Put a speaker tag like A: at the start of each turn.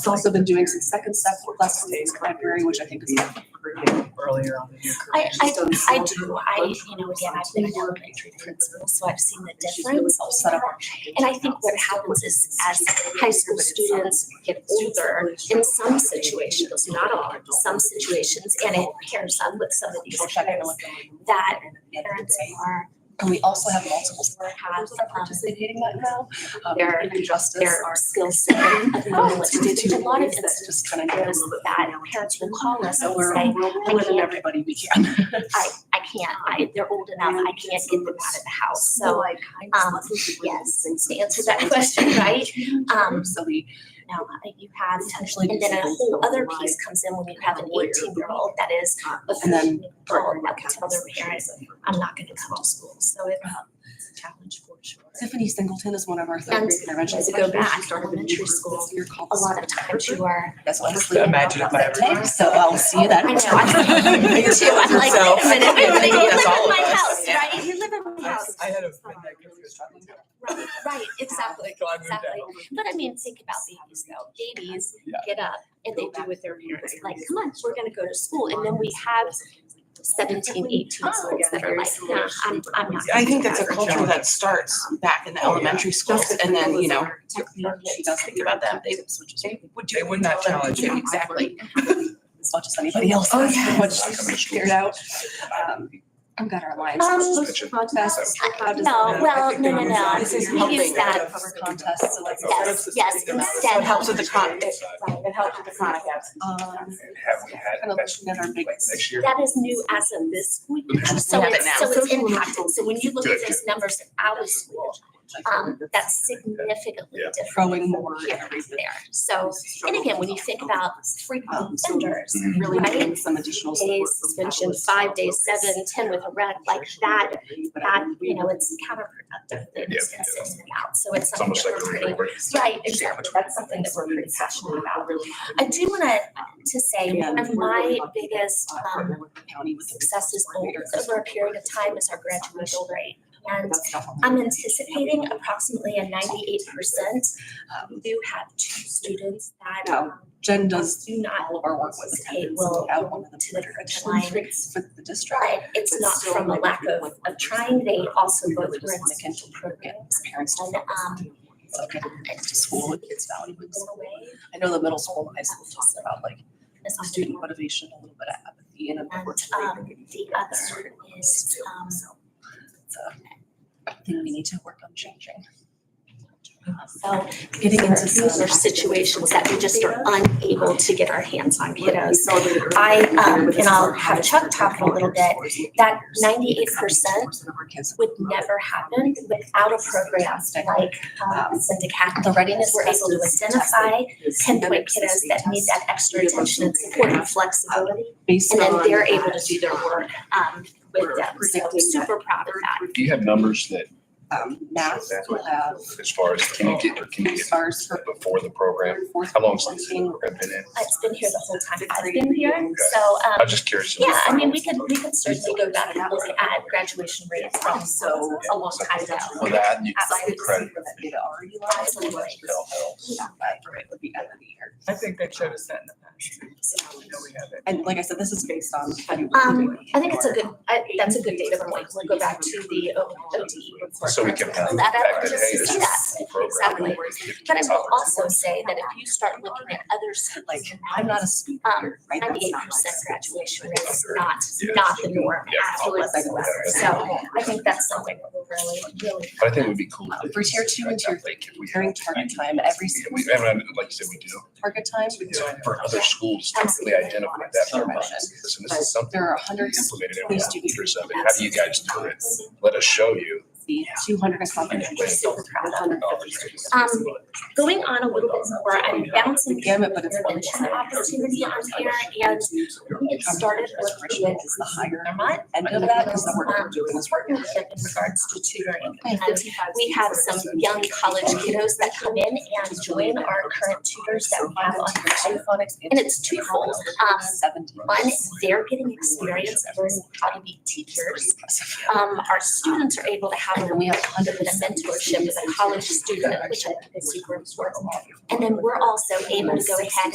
A: It's also been doing some second step plus phase primary, which I think is pretty earlier on in your career.
B: I, I,
A: She's done so
B: I
A: much
B: do,
A: work.
B: I, you know, again, I've been an elementary principal, so I've seen the
A: She's really
B: difference.
A: all set up.
B: And I think what happens is as high school students get older, in some situations, not all, some situations, and it pairs up with some of these things that parents are,
A: And we also have multiple
B: or have,
A: schools that are participating in that now. Um,
B: Their-
A: Community justice,
B: their
A: our
B: skill set.
A: Oh,
B: of knowledge. There's
A: institute,
B: Oh, a lot of
A: that
B: instances
A: just kind of get a little bit.
B: that parents will call us
A: So
B: and
A: we're,
B: say,
A: we're more than
B: can't-
A: everybody we
B: Um,
A: can.
B: I, I can't, I, they're old enough, I can't get them out of the house, so, um, yes, to answer that question, right?
A: Mm-hmm.
B: Um,
A: So we
B: Now, uh, you have,
A: potentially.
B: and then a whole other piece comes in when you have an eighteen-year-old that is
A: And then
B: affected or that would tell their parent, I'm not gonna come to school, so it's a challenge for sure.
A: Tiffany Singleton is one of our
B: And
A: third grade intervention.
B: to go back, elementary school, A lot of times you are,
A: That's what
B: Just
A: I'm
C: imagine if I ever-
A: So I'll see you then.
B: I know, I
A: Make
B: me
A: your
B: too, I'm like,
A: yourself.
B: wait a minute, wait a minute, you
C: That's
B: live
C: all
B: in
C: of
B: my
C: us.
B: house,
C: Yeah.
B: right? You live in my house,
C: I had a midnight
B: right, right, exactly,
C: So I moved out.
B: exactly. But I mean, think about babies though. Babies
C: Yeah.
B: get up and they do with their parents, like, come on, we're gonna go to school. And then we have 17,
A: Oh,
B: 18 schools that are like, nah, I'm, I'm not.
D: I think that's a
B: gonna
D: culture that starts back in the elementary schools and then, you know, she does think about them, they would do.
C: They would not challenge you.
D: Exactly.
A: As much as anybody else.
B: Oh,
A: does,
B: yes.
A: What she's figured out. Um, I've got our lines.
B: Um,
A: Contest, how does-
B: No, well,
C: no, no,
B: no.
A: This is
B: We
A: helping.
B: use that-
A: Cover contests, so like-
B: Yes, yes,
D: So
B: instead
D: It helps
B: of,
D: with the con, it,
B: right.
D: it helps with the chronic
A: Um,
D: absence.
E: Have we had
A: Kind of
E: that
A: looking at our big.
B: Um,
E: next year?
B: that is new as of this school year.
E: Next
B: So
D: year. We have
B: it's,
D: it
B: so
D: now.
B: it's impacted. So when you look at
E: Good.
B: those numbers in our school, um, that's significantly
E: Yeah.
B: different
A: Throwing more.
B: here and there. So, and again, when you think about frequent
A: Um, so-
B: offenders,
A: Really
B: Right.
A: getting some additional support.
B: days
A: from
B: suspension,
A: Catalyst.
B: five days, seven, ten with a red, like that,
A: But I
B: that,
A: think we
B: you know, it's counterproductive. that It's
E: Yeah.
B: consistent out, so it's
E: It's
B: something
E: almost
B: that
E: like
B: we're
E: a
B: pretty,
E: reorg.
B: right, exactly, that's something that we're pretty passionate about. I do wanna, um, to say,
A: Yeah,
B: one of
A: we're
B: my
A: really lucky that,
B: biggest,
A: uh,
B: um,
A: partner with the county with the
B: successes
A: coordinator.
B: over a period of time is our graduation rate. And
A: That's definitely-
B: I'm anticipating approximately a ninety-eight percent. We
A: Um,
B: do have two students that
A: No.
B: um,
A: Jen does
B: do not
A: all of our work with
B: State
A: attendance.
B: will-
A: We have one of the
B: to the
A: direction
B: line.
A: rates for the district.
B: But it's
A: But
B: not
A: still,
B: from a
A: like,
B: lack
A: if you
B: of,
A: want
B: of trying, they also
A: We
B: both
A: really
B: were
A: just
B: in
A: want to
B: potential
A: get
B: programs.
A: parents to
B: And, um,
A: okay, to school, it's valuable.
B: in a way,
A: I know the middle school and high school talks about like
B: as a
A: student
B: student.
A: motivation, a little bit of apathy and
B: And,
A: unfortunately,
B: um, the other is, um,
A: it's a thing we need to work on changing.
B: so
A: Getting into
B: these
A: some.
B: are situations that we just are unable to get our hands on kiddos. I,
A: I,
B: um, and I'll have Chuck talk a little bit, that 98% would never happen without a program like, um, Syndic Hack.
A: The readiness
B: We're able to
A: test is-
B: identify
A: is-
B: pinpoint kiddos that need that extra attention and support and flexibility.
A: Based
B: And then
A: on
B: they're able to
A: that,
B: do their work um with them, so I'm super proud of that.
E: Do you have numbers that,
A: Um, math will have
E: as far as, can you get, or can you get
A: stars for
E: before the program?
A: fourth.
E: How long has this program been in?
B: It's been here the whole time I've been here, so
E: I'm
B: um
E: just curious.
B: yeah, I mean, we could, we could certainly go back and look at graduation rates from so a long time ago.
E: Well, that, and you
B: At
A: Outside of the
E: credit.
A: secret that data already lies.
B: Absolutely.
E: Bell Hill.
A: Yeah, but it would be end of the year.
C: I think they showed us that in the past. So we know we have it.
A: And like I said, this is based on.
B: Um, I think it's a good, I that's a good data point, we'll go back to the O O D E report.
E: So we can kind
B: Pull
E: of look
B: that
E: back
B: up
E: and
B: just
E: hey,
B: to
E: this
B: see
E: is
B: that.
E: a
B: Exactly.
E: program.
B: But I will also say that if you start looking at other schools
A: Like,
B: now,
A: I'm not a student here, right? That's
B: Um, ninety-eight
A: not my
B: percent
A: school.
B: graduation rate is not, not the norm
E: Yeah.
B: at all whatsoever. So I think that's something we're really, really.
E: But I think it would be cool.
A: Uh,
E: if-
A: for tier two and tier
E: Like, if we had-
A: During target time, every
E: Yeah,
A: single
E: We, and like you said, we do.
A: target time,
E: For other schools to really identify that for us. Listen, this is something
A: there are
E: we
A: hundreds,
E: implemented and we have pictures of it. How do you guys do it? Let us show you.
A: two hundred and something.
B: We're super proud of.
E: Well,
B: Um, going on a little bit more, I'm bouncing
A: The gamut, but it's
B: intervention
A: one.
B: opportunity on here and we get started with
A: Richmond is the higher
B: Vermont
A: end of that because the work we're doing is working.
B: partnership in regards to tutoring. And we have some young college kiddos that come in and join our current tutors that we have on
A: your iPhone experience.
B: And it's twofold. Um,
A: Seventy.
B: One, they're getting experience of learning how to be teachers. Um, our students are able to have And then we have hundred percent mentorship as a college student, which I think is super important. And then we're also able to go ahead